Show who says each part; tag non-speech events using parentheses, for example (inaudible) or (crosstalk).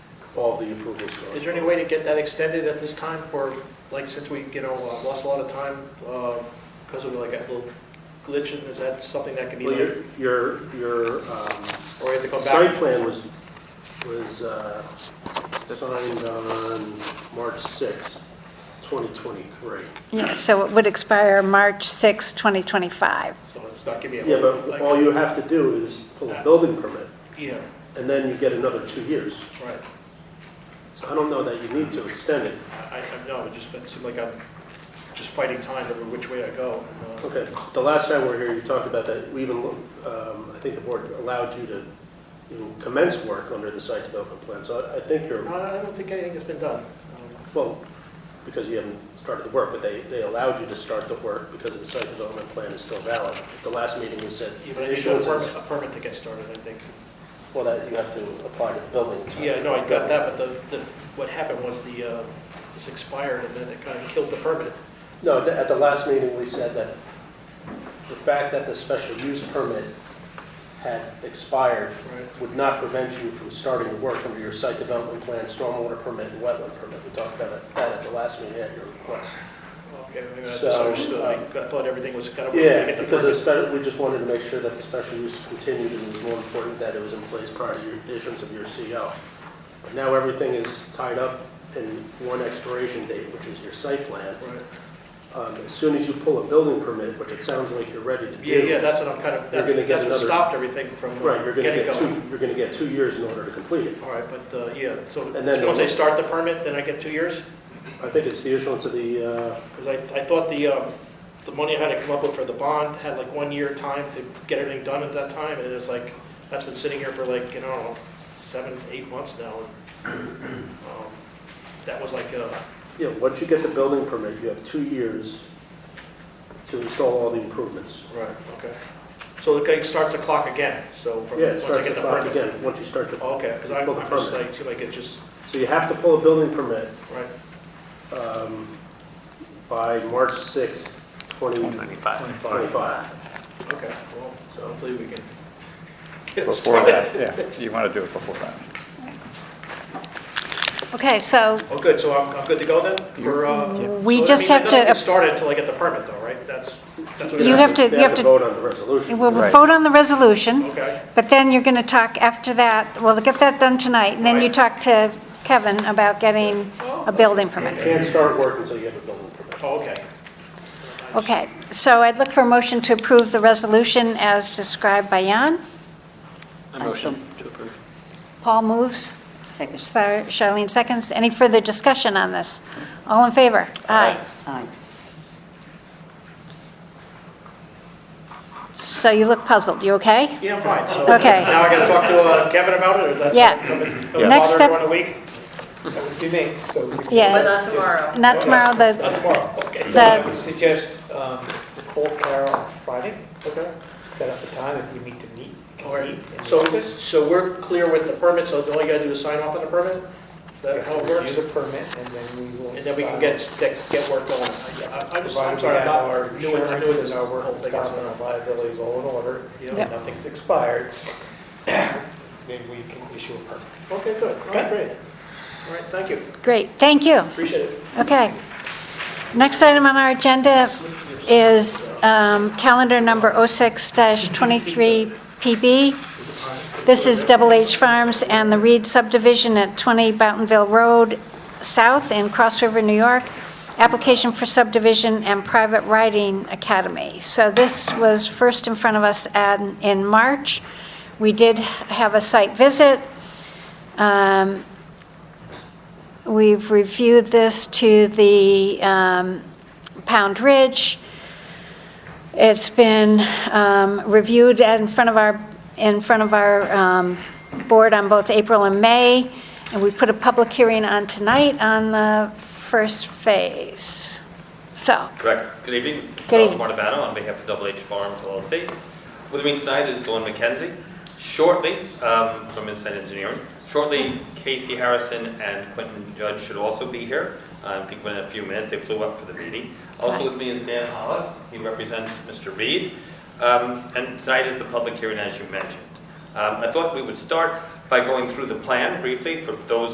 Speaker 1: all the approvals. are-
Speaker 2: Is there any way to get that extended at this time, or, like, since we, you know, uh, lost a lot of time uh, because of like a little glitch, and is that something that can be,
Speaker 1: Well,
Speaker 2: done?
Speaker 1: your, your, your um,
Speaker 2: or we have to come
Speaker 1: site
Speaker 2: back?
Speaker 1: plan was, was uh, signed on March sixth, 2023.
Speaker 3: Yeah, so it would expire March 6, 2025.
Speaker 2: So it's not giving me
Speaker 1: Yeah,
Speaker 2: a,
Speaker 1: but all
Speaker 2: like,
Speaker 1: you have to do is pull a building permit,
Speaker 2: yeah,
Speaker 1: and then you get another two years.
Speaker 2: right.
Speaker 1: So I don't know that you need to extend it.
Speaker 2: I, I know, it just, it seemed like I'm just fighting time over which way I go. Uh,
Speaker 1: Okay, the last time we were here, you talked about that, we even, um, I think the board allowed you to even commence work under the site development plan, so I- I think you're,
Speaker 2: No, I don't think anything has been done. Um,
Speaker 1: well, because you haven't started the work, but they, they allowed you to start the work because the site development plan is still valid. The last meeting, you said,
Speaker 2: Yeah, but I need a permit, a permit to get started, I think.
Speaker 1: well, that you have to apply to the building. inspector.
Speaker 2: Yeah, no, I got that, but the, the, what happened was the, uh, this expired, and then it kind of killed the permit.
Speaker 1: No, at the- at the last meeting, we said that the fact that the special use permit had expired
Speaker 2: Right.
Speaker 1: would not prevent you from starting the work under your site development plan, stormwater permit, and wetland permit. We talked about that at the last meeting at your request.
Speaker 2: Okay, maybe I
Speaker 1: So,
Speaker 2: misunderstood. I
Speaker 1: uh,
Speaker 2: I thought everything was kind of.
Speaker 1: Yeah,
Speaker 2: get the
Speaker 1: because
Speaker 2: permit.
Speaker 1: it's better- we just wanted to make sure that the special use continued, and it was more important that it was in place prior to your issuance of your CO. But now everything is tied up in one expiration date, which is your site plan.
Speaker 2: Right.
Speaker 1: Um, As soon as you pull a building permit, which it sounds like you're ready to do.
Speaker 2: Yeah, yeah, that's what I'm kind of,
Speaker 1: You're
Speaker 2: that's,
Speaker 1: gonna get
Speaker 2: that's what
Speaker 1: another-
Speaker 2: stopped everything from uh,
Speaker 1: Right, you're going to
Speaker 2: getting
Speaker 1: get two,
Speaker 2: going.
Speaker 1: you're going to get two years in order to complete it.
Speaker 2: All right, but, uh, yeah, so
Speaker 1: And then-
Speaker 2: once I start the permit, then I get two years?
Speaker 1: I think it's the issuance of the, uh,
Speaker 2: Because I, I thought the, um, the money I had to come up with for the bond had like one year time to get everything done at that time, and it's like, that's been sitting here for like, you know, seven, eight months now. and, um, That was like, uh,
Speaker 1: yeah, once you get the building permit, you have two years to install all the improvements.
Speaker 2: right, okay. So it starts the clock again, so from,
Speaker 1: Yeah, it
Speaker 2: once I
Speaker 1: starts the
Speaker 2: get the
Speaker 1: clock
Speaker 2: permit. Oh,
Speaker 1: again, once you start the,
Speaker 2: Okay, because I'm
Speaker 1: Pull the
Speaker 2: I'm just
Speaker 1: permit.
Speaker 2: like, seem like it just,
Speaker 1: so you have to pull a building permit
Speaker 2: right,
Speaker 1: um, by March 6th, 2025.
Speaker 2: okay, well, so
Speaker 1: So,
Speaker 2: hopefully we can get
Speaker 4: Before that,
Speaker 2: started.
Speaker 4: yeah, you want to do it before that.
Speaker 3: Okay, so
Speaker 2: Oh, good, so I'm, I'm good to go then for, uh?
Speaker 3: Mm-hmm. We
Speaker 2: so, I
Speaker 3: just
Speaker 2: mean,
Speaker 3: have
Speaker 2: I don't
Speaker 3: to-
Speaker 2: get started until I get the permit though, right? That's, that's what.
Speaker 3: You have to-
Speaker 1: they
Speaker 3: you have to-
Speaker 1: vote on the resolution.
Speaker 3: we'll
Speaker 4: Right.
Speaker 3: vote on the resolution,
Speaker 2: Okay,
Speaker 3: but then you're going to talk after that, we'll get that done tonight, and then you
Speaker 2: Right.
Speaker 3: talk to Kevin about getting a building
Speaker 1: You
Speaker 3: permit.
Speaker 1: Can't start work until you have a building permit.
Speaker 2: oh, okay.
Speaker 3: Okay, so I'd look for a motion to approve the resolution as described by Jan.
Speaker 5: motion to approve.
Speaker 3: Paul moves. Second. Charlene seconds. Any further discussion on this? All in favor? Aye.
Speaker 5: Aye.
Speaker 3: So you look puzzled, you okay?
Speaker 2: Yeah, I'm fine, so.
Speaker 3: Okay.
Speaker 2: Now I gotta talk to uh, Kevin about it, or is that?
Speaker 3: Yeah.
Speaker 2: Next
Speaker 3: Next
Speaker 2: Bother
Speaker 3: step-
Speaker 2: everyone a week?
Speaker 6: That would be me, so we could-
Speaker 3: Yeah.
Speaker 7: But not tomorrow.
Speaker 3: Not tomorrow,
Speaker 2: Not
Speaker 3: the,
Speaker 2: tomorrow, okay.
Speaker 6: I
Speaker 3: the,
Speaker 6: would suggest um, call Kara on Friday,
Speaker 2: Okay.
Speaker 6: set up a time if we need to meet. we can
Speaker 2: All right,
Speaker 6: meet in the
Speaker 2: so,
Speaker 6: office.
Speaker 2: so we're clear with the permit, so all you gotta do is sign off on the permit? Is that how it works?
Speaker 6: Use a permit and then we will.
Speaker 2: And then we can get, get get work going. I- I'm just, I'm sorry, I'm not new in, I'm new in this
Speaker 6: Our
Speaker 2: whole
Speaker 6: workers'
Speaker 2: thing.
Speaker 6: comp and our liabilities all in order,
Speaker 2: Yeah.
Speaker 6: and nothing's expired, (coughs) then we can issue a permit.
Speaker 2: Okay, good, all right, great. All right, thank you,
Speaker 3: great, thank you.
Speaker 2: appreciate it.
Speaker 3: Okay. Next item on our agenda is um, calendar number 06-23PB. This is Double H Farms and the Reed subdivision at 20 Boutonville Road South in Cross River, New York. Application for subdivision and private riding academy. So this was first in front of us at- in March. We did have a site visit. Um, We've reviewed this to the um, Pound Ridge. It's been um, reviewed at- in front of our, in front of our um, board on both April and May, and we put a public hearing on tonight on the first phase. So,
Speaker 8: Correct. Good evening.
Speaker 3: Good evening.
Speaker 8: Charles Martivano on behalf of Double H Farms LLC. With me tonight is Dawn McKenzie. Shortly, um, from Inside Engineering, shortly Casey Harrison and Quentin Judge should also be here. Uh, I think within a few minutes, they flew up for the meeting. Also with me is Dan Hollis. He represents Mr. Reed. Um, And tonight is the public hearing, as you mentioned. Um, I thought we would start by going through the plan briefly for those